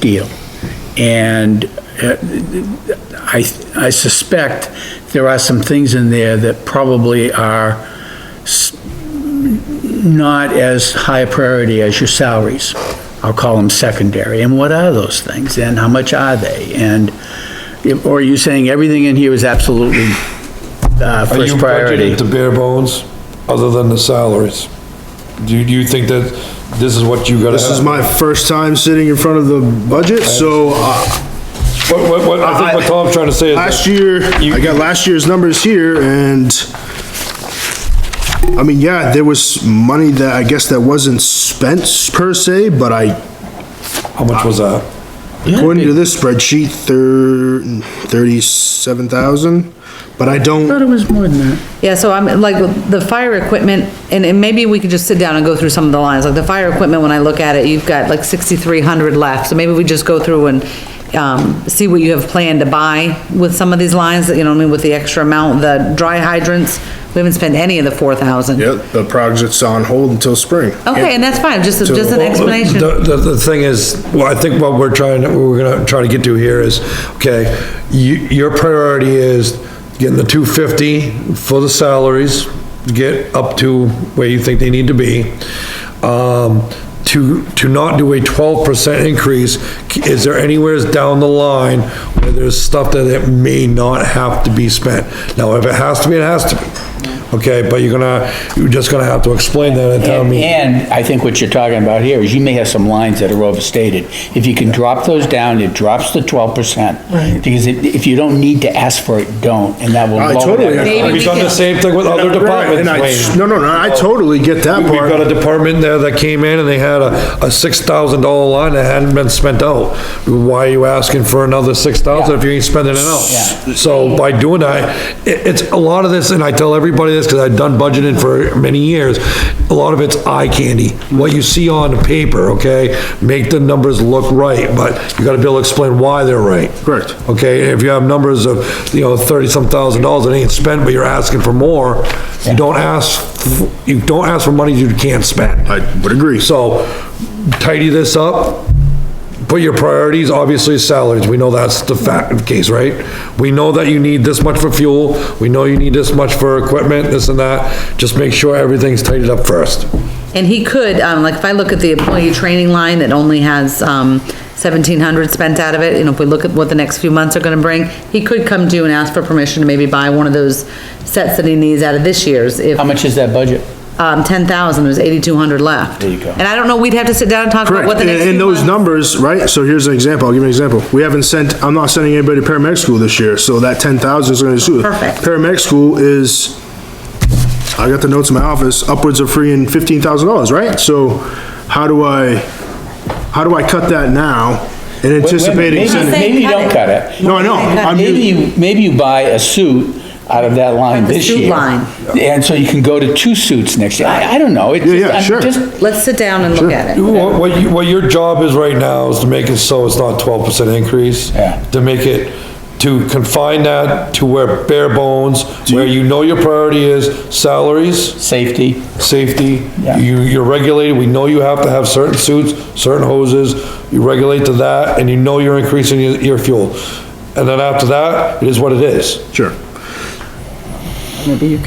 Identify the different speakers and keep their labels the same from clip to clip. Speaker 1: deal. And uh, I, I suspect there are some things in there that probably are s- not as high a priority as your salaries. I'll call them secondary. And what are those things? And how much are they? And, or are you saying everything in here is absolutely uh,
Speaker 2: Are you
Speaker 1: first priority?
Speaker 2: budgeting to bare bones, other than the salaries? Do you, do you think that this is what you gotta
Speaker 3: This is
Speaker 2: have?
Speaker 3: my first time sitting in front of the budget, so uh,
Speaker 2: What, what, what, I think what Tom's trying to say is
Speaker 3: last
Speaker 2: that,
Speaker 3: year, I got last year's numbers here and I mean, yeah, there was money that I guess that wasn't spent per se, but I,
Speaker 2: how much was that?
Speaker 3: according to this spreadsheet, thir- thirty-seven thousand, but I
Speaker 1: I thought
Speaker 3: don't,
Speaker 1: it was more than that.
Speaker 4: Yeah, so I'm, like, the fire equipment, and, and maybe we could just sit down and go through some of the lines, like the fire equipment, when I look at it, you've got like sixty-three hundred left, so maybe we just go through and, um, see what you have planned to buy with some of these lines, that you know, what I mean, with the extra amount, the dry hydrants, we haven't spent any of the four thousand.
Speaker 3: yeah, the project's on hold until spring.
Speaker 4: Okay, and that's fine, just, just an
Speaker 2: Well,
Speaker 4: explanation.
Speaker 2: The, the, the thing is, well, I think what we're trying, what we're gonna try to get to here is, okay, you, your priority is getting the two fifty for the salaries, to get up to where you think they need to be. Um, to, to not do a twelve percent increase, is there anywheres down the line where there's stuff that it may not have to be spent? Now, if it has to be, it has to be, okay, but you're gonna, you're just gonna have to explain that at town
Speaker 5: And,
Speaker 2: meeting.
Speaker 5: and I think what you're talking about here is you may have some lines that are overstated. If you can drop those down, it drops the twelve percent. Right. Because if, if you don't need to ask for it, don't, and that will
Speaker 3: I
Speaker 5: lower
Speaker 3: totally
Speaker 5: that.
Speaker 4: Maybe
Speaker 2: We've
Speaker 4: we
Speaker 2: done the
Speaker 4: can-
Speaker 2: same thing with other
Speaker 3: Right, and
Speaker 2: departments,
Speaker 3: I-
Speaker 2: Wayne.
Speaker 3: No, no, no, I totally get that
Speaker 2: We've got a
Speaker 3: part.
Speaker 2: department there that came in and they had a, a six thousand dollar line that hadn't been spent out. Why are you asking for another six thousand if you ain't spending it out? So by doing that, it, it's a lot of this, and I tell everybody this, cause I've done budgeting for many years, a lot of it's eye candy. What you see on the paper, okay, make the numbers look right, but you gotta be able to explain why they're right.
Speaker 3: Correct.
Speaker 2: Okay, if you have numbers of, you know, thirty-some thousand dollars that ain't spent, but you're asking for more, you don't ask, f- you don't ask for money you can't spend.
Speaker 3: I would agree.
Speaker 2: So tidy this up, put your priorities, obviously salaries, we know that's the fact, case, right? We know that you need this much for fuel, we know you need this much for equipment, this and that, just make sure everything's tidied up first.
Speaker 4: And he could, um, like, if I look at the employee training line that only has, um, seventeen hundred spent out of it, and if we look at what the next few months are gonna bring, he could come to you and ask for permission to maybe buy one of those sets that he needs out of this year's, if,
Speaker 5: How much is that budget?
Speaker 4: um, ten thousand, there's eighty-two hundred left.
Speaker 5: There you go.
Speaker 4: And I don't know, we'd have to sit down and talk about
Speaker 3: Correct,
Speaker 4: what the
Speaker 3: and
Speaker 4: next few
Speaker 3: and those
Speaker 4: months-
Speaker 3: numbers, right, so here's an example, I'll give you an example. We haven't sent, I'm not sending anybody to paramedic school this year, so that ten thousand is gonna do.
Speaker 4: Perfect.
Speaker 3: Paramedic school is, I got the notes in my office, upwards of free and fifteen thousand dollars, right? So how do I, how do I cut that now in anticipating
Speaker 5: Maybe-
Speaker 3: sending?
Speaker 5: Maybe you don't cut it.
Speaker 3: No, I know, I'm,
Speaker 5: Maybe
Speaker 3: using-
Speaker 5: you, maybe you buy a suit out of that line
Speaker 4: Like the
Speaker 5: this
Speaker 4: suit
Speaker 5: year.
Speaker 4: line.
Speaker 5: And so you can go to two suits next year. I, I don't know. It's
Speaker 3: Yeah,
Speaker 5: just-
Speaker 3: yeah,
Speaker 5: I'm
Speaker 3: sure.
Speaker 5: just-
Speaker 4: Let's sit down and look at it.
Speaker 2: What, what you, what your job is right now is to make it so it's not twelve percent increase.
Speaker 5: Yeah.
Speaker 2: To make it, to confine that to where bare bones, where you know your priority is salaries,
Speaker 5: Safety,
Speaker 2: safety.
Speaker 5: Yeah.
Speaker 2: You, you're regulated, we know you have to have certain suits, certain hoses, you regulate to that, and you know you're increasing your, your fuel. And then after that, it is what it is,
Speaker 3: sure,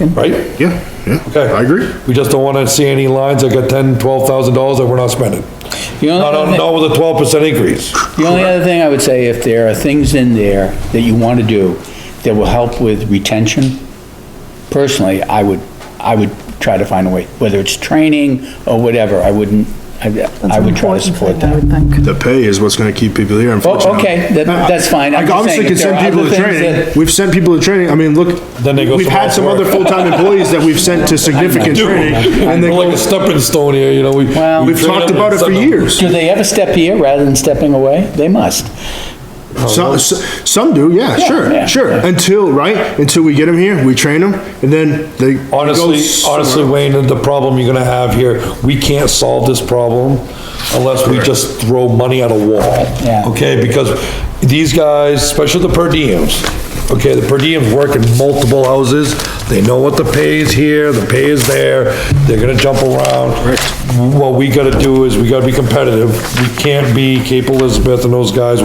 Speaker 2: right?
Speaker 3: yeah, yeah,
Speaker 2: Okay.
Speaker 3: I agree.
Speaker 2: We just don't wanna see any lines that got ten, twelve thousand dollars that we're not spending.
Speaker 5: The
Speaker 3: Oh,
Speaker 5: only
Speaker 2: Not,
Speaker 5: other
Speaker 2: on-
Speaker 5: thing-
Speaker 2: not with a twelve percent increase.
Speaker 5: The only other thing I would say, if there are things in there that you want to do that will help with retention, personally, I would, I would try to find a way, whether it's training or whatever, I wouldn't, I I would try to support that.
Speaker 3: The pay is what's gonna keep people here, unfortunately.
Speaker 5: Oh, okay, that- that's fine. I'm
Speaker 3: I
Speaker 5: just
Speaker 3: obviously
Speaker 5: saying,
Speaker 3: can
Speaker 5: if there
Speaker 3: send
Speaker 5: are
Speaker 3: people
Speaker 5: other
Speaker 3: to
Speaker 5: things
Speaker 3: training.
Speaker 5: that-
Speaker 3: We've sent people to training. I mean, look,
Speaker 2: Then they go
Speaker 3: we've had some
Speaker 2: somewhere
Speaker 3: other
Speaker 2: else.
Speaker 3: full-time employees that we've sent to significant training and they
Speaker 2: We're like
Speaker 3: go,
Speaker 2: a stepping stone here, you know, we.
Speaker 5: Well-
Speaker 2: we
Speaker 3: we've
Speaker 2: train
Speaker 3: talked
Speaker 2: them
Speaker 3: about it
Speaker 2: and
Speaker 3: for
Speaker 2: send them.
Speaker 3: years.
Speaker 5: Do they ever step here rather than stepping away? They must.
Speaker 2: Oh,
Speaker 3: Some, s- some do, yeah,
Speaker 5: yeah,
Speaker 3: sure, sure.
Speaker 5: yeah.
Speaker 3: Until, right, until we get them here, we train them and then they. they go
Speaker 2: Honestly,
Speaker 3: somewhere
Speaker 2: honestly, Wayne, the problem you're gonna have here, we can't solve this problem unless we just throw money at a wall.
Speaker 5: Yeah.
Speaker 2: Okay, because these guys, especially the per diems, okay, the per diems work in multiple houses, They know what the pay is here, the pay is there, they're gonna jump around. What we gotta do is, we gotta be competitive. We can't be Cape Elizabeth and those guys